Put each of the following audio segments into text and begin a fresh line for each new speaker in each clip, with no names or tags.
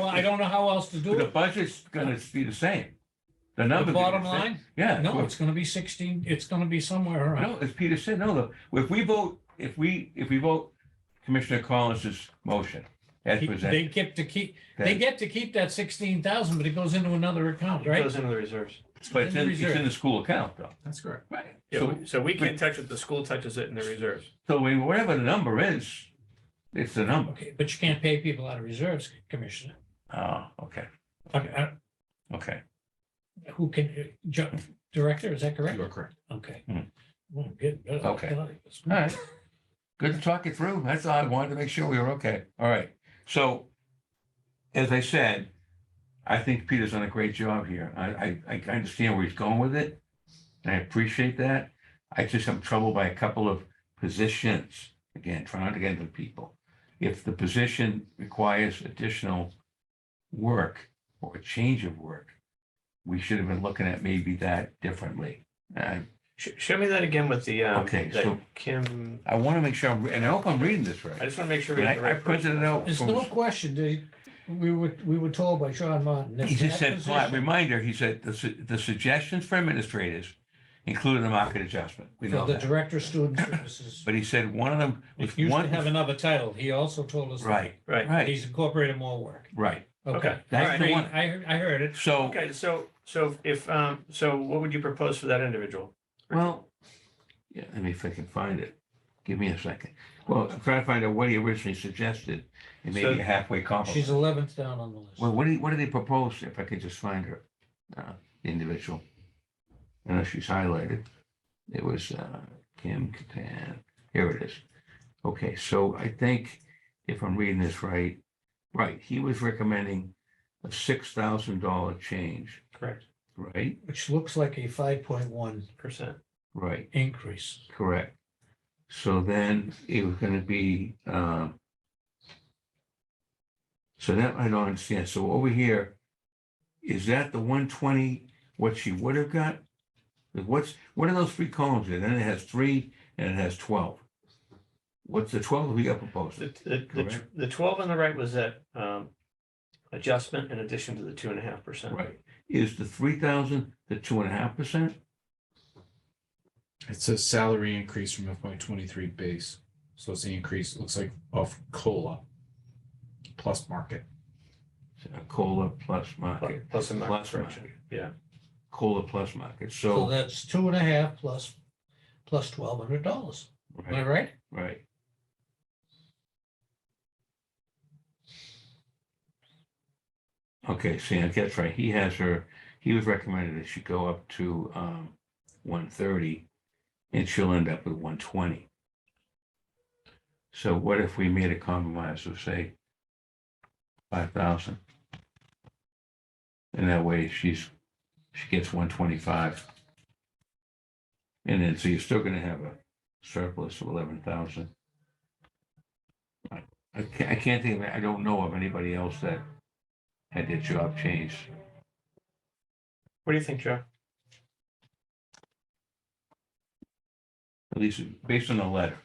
how, I don't know how else to do
The
it.
budget's gonna be the same. The
The
numbers. are
bottom
the same.
line,
Yeah.
no,
we're-
it's gonna be sixteen, it's gonna be somewhere around.
No, as Peter said, no, the- if we vote, if we, if we vote Commissioner Collins's motion as
He- They
presented.
get to keep, they
then-
get to keep that sixteen thousand, but it goes into another account, right?
Goes into the reserves.
But it's in, it's in
reserve.
the school account though.
That's correct.
Right.
Yeah,
So,
we- so we can't touch it, the school touches it in the reserves.
so we- whatever the number is, it's the number.
Okay, but you can't pay people out of reserves, Commissioner.
Oh, okay,
I mean, I-
okay.
Who can, uh, Ju- Director, is that correct?
You are correct.
Okay.
Hmm.
Well, good, good.
Okay. All right. Good to talk it through. That's all. I wanted to make sure we were okay. All right. So as I said, I think Peter's done a great job here. I, I, I understand where he's going with it. And I appreciate that. I just am troubled by a couple of positions. Again, trying to get into people. If the position requires additional work or a change of work, we should have been looking at maybe that differently. I
Sh- Show me that again with the, um,
Okay,
that
so-
Kim,
I want to make sure, I'm re- and I hope I'm reading this right.
I just want to make sure. we
And
get the
I, I
right person.
printed it out.
There's
from-
no question, they, we were, we were told by John Martin. that
He just
that
said, "Flat
position-
reminder, he said, the, su- the suggestions for administrators included a market adjustment. We know
For the
that.
Director of Student Services.
But he said one of them was
It used to have
one,
another title. He also told us. that
right,
Right,
right,
He's incorporated more work.
right.
Okay.
Okay.
I
That's the
agree.
one.
I, heard- I heard it.
So,
okay, so, so if, um, so what would you propose for that individual?
well, yeah, let me if I can find it. Give me a second. Well, I'm trying to find out what he originally suggested. It may
So-
be a halfway
She's
compliment.
eleventh down on the list.
Well, what did, what did they propose? If I could just find her, uh, the individual. I know she's highlighted. It was, uh, Kim Katan. Here it is. Okay, so I think if I'm reading this right, right, he was recommending a six thousand dollar change,
Correct.
right?
Which looks like a five point one
Percent.
Right,
increase.
correct. So then it was gonna be, uh, so that I don't understand. So over here, is that the one twenty, what she would have got? What's, what are those three columns? And then it has three and it has twelve. What's the twelve we got proposed?
The, the- the, tw- the twelve on the right was that, um, adjustment in addition to the two and a half percent.
Right, is the three thousand, the two and a half percent?
It says salary increase from FY twenty-three base. So it's the increase, looks like of COLA plus market.
Cola plus market,
Plus a market
Plus
correction, yeah.
cola plus market,
So
so,
that's two and a half plus, plus twelve hundred dollars. Am I
right,
right?
right. Okay, see, I guess, right, he has her, he was recommended that she go up to, um, one thirty, and she'll end up with one twenty. So what if we made a compromise of, say, five thousand? And that way she's, she gets one twenty-five. And then, so you're still gonna have a surplus of eleven thousand. I can't, I can't think of, I don't know of anybody else that had their job changed.
What do you think, Joe?
at least based on the letter.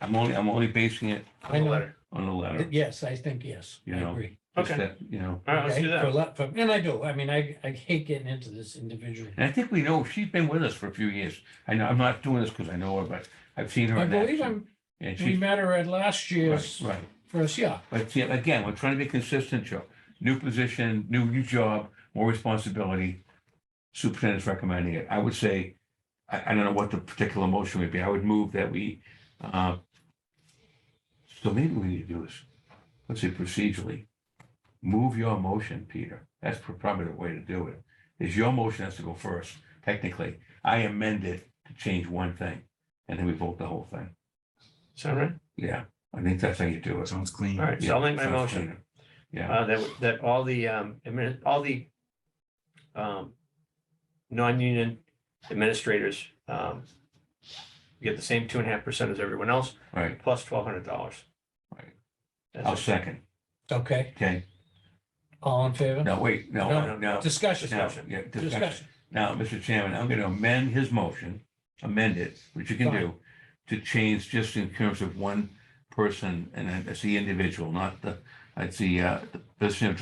I'm only, I'm only basing it
I know.
Letter.
on the letter.
Yes, I think yes.
You
I
know,
agree.
just
Okay.
that, You know,
All right, let's
Okay,
do
for
that.
la- for- And I do. I mean, I, I hate getting into this individual.
and I think we know, she's been with us for a few years. I know, I'm not doing this because I know her, but I've seen her.
I
in
believe
action,
I'm,
And
we
she's,
met her at last
right,
year's
right.
first, yeah.
But see, again, we're trying to be consistent, Joe. New position, new, new job, more responsibility. Superintendent's recommending it. I would say, I, I don't know what the particular motion would be. I would move that we, uh, so maybe we need to do this, let's say procedurally. Move your motion, Peter. That's probably the way to do it. Is your motion has to go first, technically. I amend it to change one thing, and then we vote the whole thing.
Sound right?
Yeah, I think that's how you do it.
Sounds clean.
All right, so I'll make my
Yeah, sounds
motion.
cleaner. Yeah.
Uh, that, that all the, um, admin, all the, um, non-union administrators, um, get the same two and a half percent as everyone else,
Right,
plus twelve hundred dollars.
Right. Oh, I'll second,
Okay,
okay?
all in favor?
No, wait, no,
No,
no, no.
Discussion,
Now, yeah, discussion.
discussion.
Now, Mr. Chairman, I'm going to amend his motion, amend it, which you can do, to change just in terms of one person, and that's the individual, not the, that's the, uh, the business